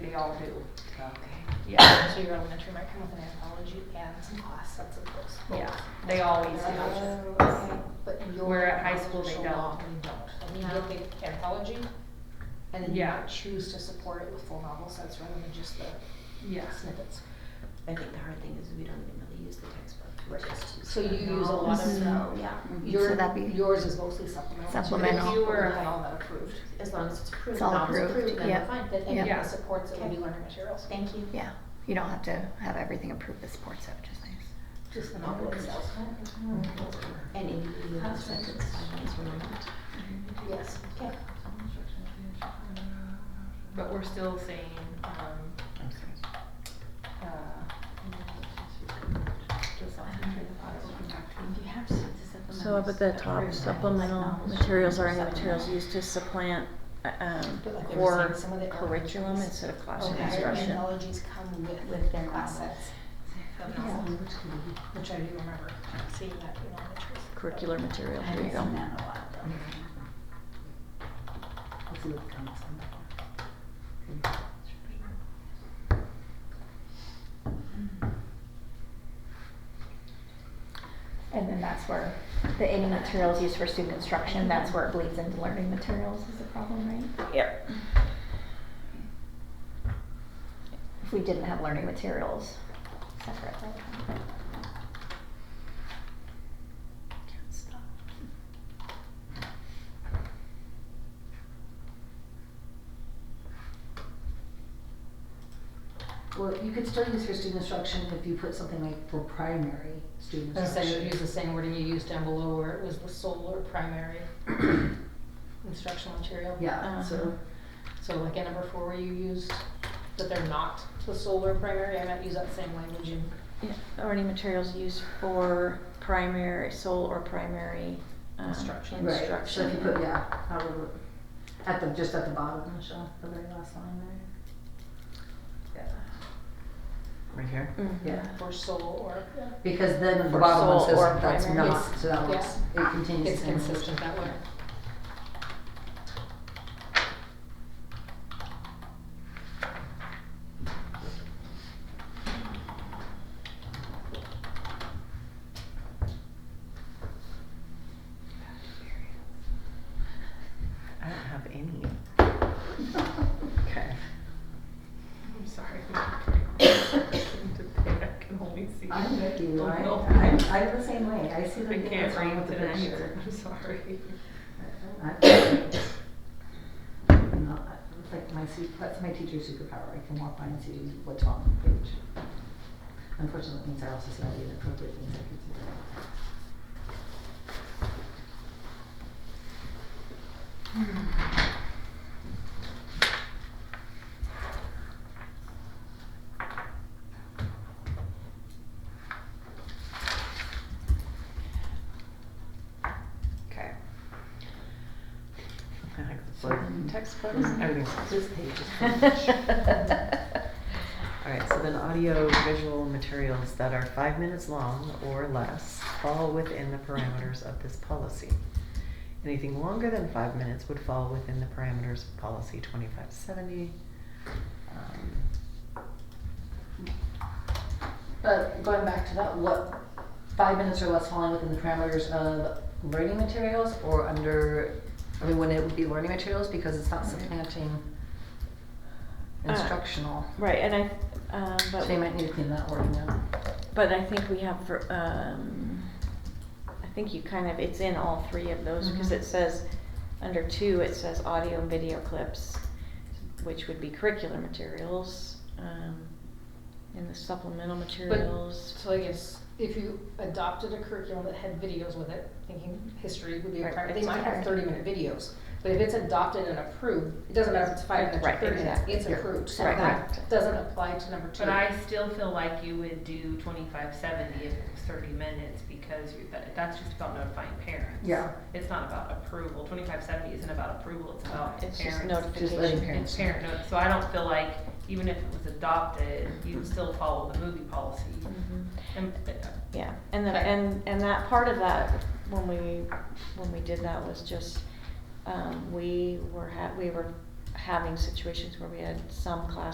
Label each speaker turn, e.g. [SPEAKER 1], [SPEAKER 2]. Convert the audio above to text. [SPEAKER 1] we all do.
[SPEAKER 2] Okay.
[SPEAKER 1] Yeah,
[SPEAKER 3] So your elementary might come with an anthology and some class sets of books.
[SPEAKER 1] yeah, they always do.
[SPEAKER 3] Oh,
[SPEAKER 2] okay.
[SPEAKER 3] But your
[SPEAKER 1] Where at high school they
[SPEAKER 3] elementary shall not, We don't.
[SPEAKER 2] No.
[SPEAKER 3] Like, we get the anthology, and then you
[SPEAKER 1] Yeah.
[SPEAKER 3] might choose to support it with full novel sets rather than just the
[SPEAKER 1] Yes.
[SPEAKER 3] snippets.
[SPEAKER 2] I think the hard thing is we don't even really use the textbook. We
[SPEAKER 3] Right.
[SPEAKER 2] just use
[SPEAKER 3] So
[SPEAKER 2] the
[SPEAKER 3] you use Mm-hmm. a lot of,
[SPEAKER 2] novels.
[SPEAKER 4] Mhm.
[SPEAKER 2] Yeah,
[SPEAKER 4] Mhm. So
[SPEAKER 3] Your,
[SPEAKER 4] that'd be-
[SPEAKER 3] yours is mostly supplemental. too.
[SPEAKER 4] Supplemental.
[SPEAKER 3] If you were to have all that approved.
[SPEAKER 2] as long as it's approved,
[SPEAKER 4] It's all
[SPEAKER 2] novel's
[SPEAKER 4] approved,
[SPEAKER 2] approved, then we're
[SPEAKER 4] yeah.
[SPEAKER 2] fine. But
[SPEAKER 4] Yeah.
[SPEAKER 2] anyway,
[SPEAKER 3] That supports it would be
[SPEAKER 2] Okay.
[SPEAKER 3] learning materials.
[SPEAKER 2] Thank you.
[SPEAKER 4] Yeah, you don't have to have everything approved as sports up, just nice.
[SPEAKER 3] Just the novel itself.
[SPEAKER 2] And individual
[SPEAKER 3] That's
[SPEAKER 2] sentence guidelines were not.
[SPEAKER 3] Yes.
[SPEAKER 2] Okay.
[SPEAKER 1] But we're still saying, um, uh, just off the train of thought, we'll come back to it.
[SPEAKER 5] So up at the top, supplemental materials are any materials used to supplant, uh, um,
[SPEAKER 3] But like they were
[SPEAKER 5] core
[SPEAKER 3] saying, some of the
[SPEAKER 5] curriculum
[SPEAKER 3] anthologies-
[SPEAKER 5] instead of classroom
[SPEAKER 3] Okay, their
[SPEAKER 5] instruction.
[SPEAKER 3] anthologies come with,
[SPEAKER 2] With their
[SPEAKER 3] class
[SPEAKER 2] novels.
[SPEAKER 3] sets. of novels, Which I do remember seeing that in all the trees.
[SPEAKER 5] Curricular material, there you go.
[SPEAKER 4] And then that's where the any materials used for student instruction, that's where it bleeds into learning materials is a problem, right?
[SPEAKER 5] Yep.
[SPEAKER 4] If we didn't have learning materials separate.
[SPEAKER 6] Well, you could still use for student instruction if you put something like for primary student
[SPEAKER 3] And so you use
[SPEAKER 6] instruction.
[SPEAKER 3] the same wording you used down below where it was the sole or primary instructional material.
[SPEAKER 5] Uh-huh.
[SPEAKER 6] Yeah, so,
[SPEAKER 3] So like in number four where you used that they're not the sole or primary, I might use that same language in
[SPEAKER 5] Yeah, Or any materials used for primary, sole or primary, um,
[SPEAKER 3] Instruction.
[SPEAKER 6] right, so if you
[SPEAKER 5] instruction.
[SPEAKER 6] put, yeah, that would work. At the, just at the bottom, Michelle, the very last line there.
[SPEAKER 7] Right here?
[SPEAKER 2] Mm.
[SPEAKER 4] Mm-hmm.
[SPEAKER 5] Mhm.
[SPEAKER 6] Yeah,
[SPEAKER 3] for sole or,
[SPEAKER 6] because then the
[SPEAKER 5] Or
[SPEAKER 6] bottom one
[SPEAKER 5] sole
[SPEAKER 6] says
[SPEAKER 5] or
[SPEAKER 6] that's
[SPEAKER 5] primary.
[SPEAKER 6] not, so that looks, it continues.
[SPEAKER 3] it's
[SPEAKER 6] to be-
[SPEAKER 3] consistent that way.
[SPEAKER 7] I don't have any. Okay.
[SPEAKER 1] I'm sorry. I can only see.
[SPEAKER 6] I'm with you,
[SPEAKER 1] the
[SPEAKER 6] I,
[SPEAKER 1] little-
[SPEAKER 6] I'm, I'm the same way, I see
[SPEAKER 1] I
[SPEAKER 6] the,
[SPEAKER 1] can't
[SPEAKER 6] what's wrong
[SPEAKER 1] read
[SPEAKER 6] with the
[SPEAKER 1] tonight,
[SPEAKER 6] picture.
[SPEAKER 1] I'm sorry.
[SPEAKER 6] Like my, su- that's my teacher's superpower, I can walk by and see what's wrong on the page. Unfortunately, it means I also see all the inappropriate things I could do.
[SPEAKER 7] Okay. I like the blue
[SPEAKER 2] Mm.
[SPEAKER 7] Textbooks, everything's.
[SPEAKER 6] This page is
[SPEAKER 7] Alright, so then audio visual materials that are five minutes long or less fall within the parameters of this policy. Anything longer than five minutes would fall within the parameters of policy twenty-five seventy. Um,
[SPEAKER 6] But going back to that, what, five minutes or less falling within the parameters of learning materials or under, I mean, when it would be learning materials because it's not supplanting
[SPEAKER 5] Uh,
[SPEAKER 6] instructional.
[SPEAKER 5] Right, and I, um,
[SPEAKER 6] So you
[SPEAKER 5] but,
[SPEAKER 6] might need to clean that wording up.
[SPEAKER 5] but I think we have, ver- um, I think you kind of, it's in all three of those, because
[SPEAKER 6] Mhm.
[SPEAKER 1] Mm-hmm.
[SPEAKER 5] it says, under two, it says audio and video clips, which would be curricular materials, um, and the supplemental materials.
[SPEAKER 3] So I guess if you adopted a curriculum that had videos with it, thinking history would be a
[SPEAKER 5] Right,
[SPEAKER 3] primary, they
[SPEAKER 5] it's
[SPEAKER 3] might have
[SPEAKER 5] hard.
[SPEAKER 3] thirty minute videos. But if it's adopted and approved, it doesn't matter if it's five minutes or
[SPEAKER 5] Right,
[SPEAKER 3] thirty minutes,
[SPEAKER 5] exactly.
[SPEAKER 3] it's approved, so
[SPEAKER 5] Right.
[SPEAKER 3] that doesn't apply to number two.
[SPEAKER 1] But I still feel like you would do twenty-five seventy if it was thirty minutes, because you, that, that's just about notifying parents.
[SPEAKER 6] Yeah.
[SPEAKER 1] It's not about approval, twenty-five seventy isn't about approval, it's about parents.
[SPEAKER 5] It's just
[SPEAKER 6] Just letting
[SPEAKER 5] notification.
[SPEAKER 1] It's parent notice, so I don't feel like, even if it was adopted, you'd still follow the movie policy.
[SPEAKER 5] Mhm.
[SPEAKER 1] And, uh,
[SPEAKER 5] Yeah, and the,
[SPEAKER 1] Okay.
[SPEAKER 5] and, and that part of that, when we, when we did that was just, um, we were ha- we were having situations where we had some classrooms